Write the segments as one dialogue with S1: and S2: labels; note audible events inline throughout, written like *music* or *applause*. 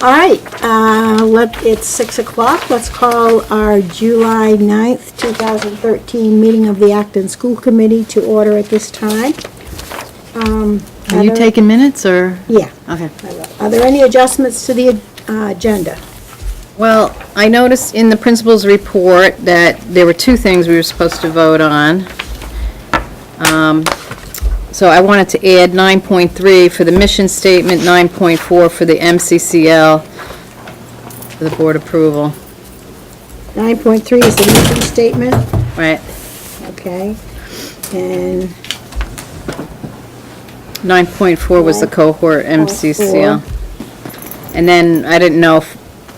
S1: All right, uh, let, it's 6 o'clock. Let's call our July 9th, 2013 meeting of the Acton School Committee to order at this time. Um,
S2: Are you
S1: there-
S2: taking minutes, or?
S1: Yeah.
S2: Okay.
S1: Are there any adjustments to the uh, agenda?
S2: Well, I noticed in the principal's report that there were two things we were supposed to vote on. Um, So I wanted to add 9.3 for the mission statement, 9.4 for the MCCL, for the board approval,
S1: 9.3 is the mission statement,
S2: right?
S1: okay? And
S2: 9.4 was the cohort MCCL. And then, I didn't know if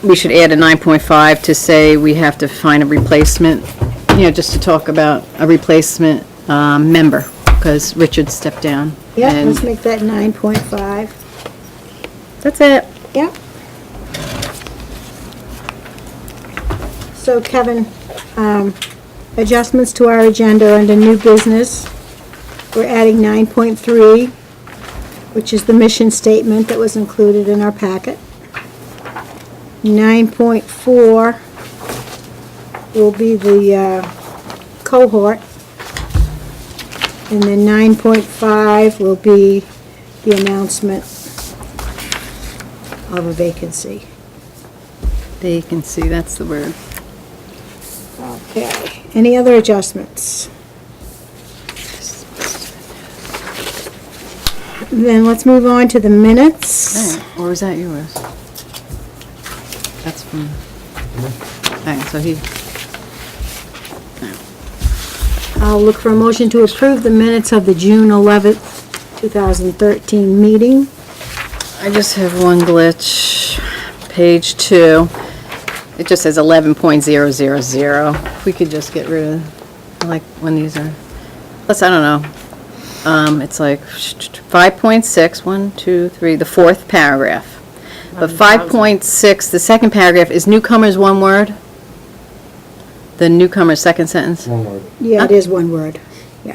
S2: we should add a 9.5 to say we have to find a replacement, you know, just to talk about a replacement um, member, because Richard stepped down.
S1: Yeah,
S2: And
S1: let's make that 9.5.
S2: That's it.
S1: Yep. So Kevin, um, adjustments to our agenda under new business. We're adding 9.3, which is the mission statement that was included in our packet. 9.4 will be the uh, cohort. And then 9.5 will be the announcement of a vacancy.
S2: They can see, that's the word.
S1: Okay, any other adjustments? Then let's move on to the minutes.
S2: Alright, Or is that yours? That's from, all right, so he,
S1: I'll look for a motion to approve the minutes of the June 11th, 2013 meeting.
S2: I just have one glitch. Page two, it just says 11.000. If we could just get rid of, I like when these are, plus, I don't know. Um, It's like 5.6, one, two, three, the fourth paragraph. But 5.6, the second paragraph, is newcomers one word? The newcomer's second sentence?
S3: One word.
S1: Yeah, it is one word. Yeah,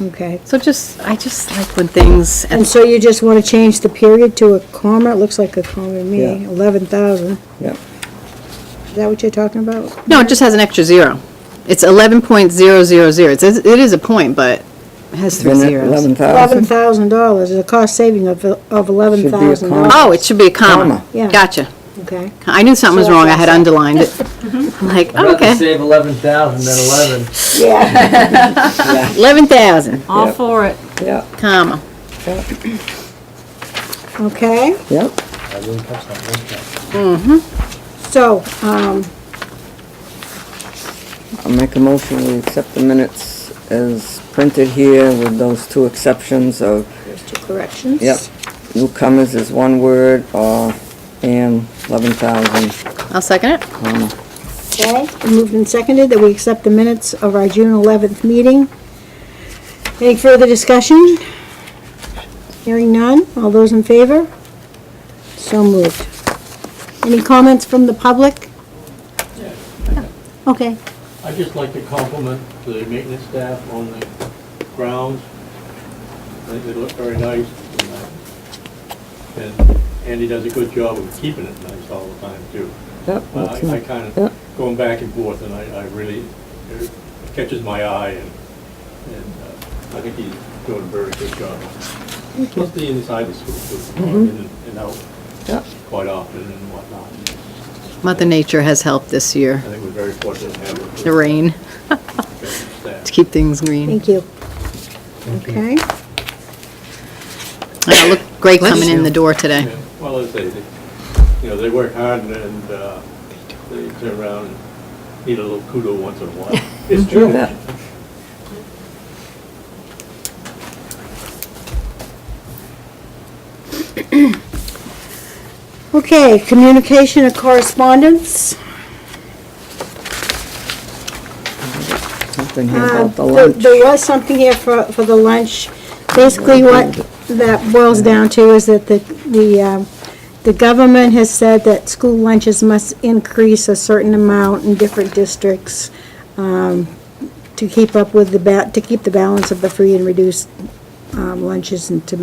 S1: okay.
S2: So just, I just like when things, at
S1: And so you just want to change the period to a comma? It looks like a comma to me,
S3: Yeah.
S1: 11,000.
S3: Yep.
S1: Is that what you're talking about?
S2: No, it just has an extra zero. It's 11.000. It's, it is a point, but it has three zeros.
S3: Eleven thousand.
S1: $11,000, is a cost saving of of
S3: Should be a
S1: $11,000.
S3: comma.
S2: Oh, it should be a comma.
S3: Comma.
S1: Yeah.
S2: Gotcha.
S1: Okay.
S2: I knew something was
S1: So that's
S2: wrong. I had
S1: awesome.
S2: underlined it. I'm like,
S4: I'd
S2: oh,
S4: rather
S2: okay.
S4: save eleven thousand than eleven.
S1: Yeah.
S2: 11,000,
S5: All
S3: Yep.
S5: for it.
S3: Yep,
S2: comma.
S1: Okay,
S3: yep.
S4: I didn't catch that one time.
S1: so, um,
S3: I'll make a motion, we accept the minutes as printed here with those two exceptions of,
S1: there's two corrections.
S3: yep, newcomers is one word, or, and eleven thousand,
S2: I'll second it.
S3: comma.
S1: Okay, moved and seconded that we accept the minutes of our June 11th meeting. Any further discussion? Hearing none, all those in favor? So moved. Any comments from the public? Okay,
S6: I'd just like to compliment the maintenance staff on the grounds. I think they look very nice. and, uh, And Andy does a good job of keeping it nice all the time, too. Uh,
S3: Yep,
S6: I
S3: that's nice.
S6: I kind
S3: Yep.
S6: of going back and forth, and I I really, it catches my eye, and and uh, I think he's doing a very good job. Mostly inside the school, too, in and out
S3: Yep.
S6: quite often and whatnot.
S2: Mother Nature has helped this year,
S6: I think we're very fortunate to have a
S2: the
S6: good
S2: rain,
S6: staff.
S2: to keep things green.
S1: thank you. Okay,
S2: And it looked great coming in the door today.
S6: Yeah, Well, as they, they- you know, they work hard and- and uh, they turn around and need a little kudo once in a while. It's *laughs* true.
S3: Yep.
S1: okay, communication and correspondence.
S3: Something here
S1: Uh,
S3: about the
S1: there-
S3: lunch.
S1: There was something here for, for the lunch. Basically, what that boils down to is that the, the, um, the government has said that school lunches must increase a certain amount in different districts um, to keep up with the, ba- to keep the balance of the free and reduced um, lunches and to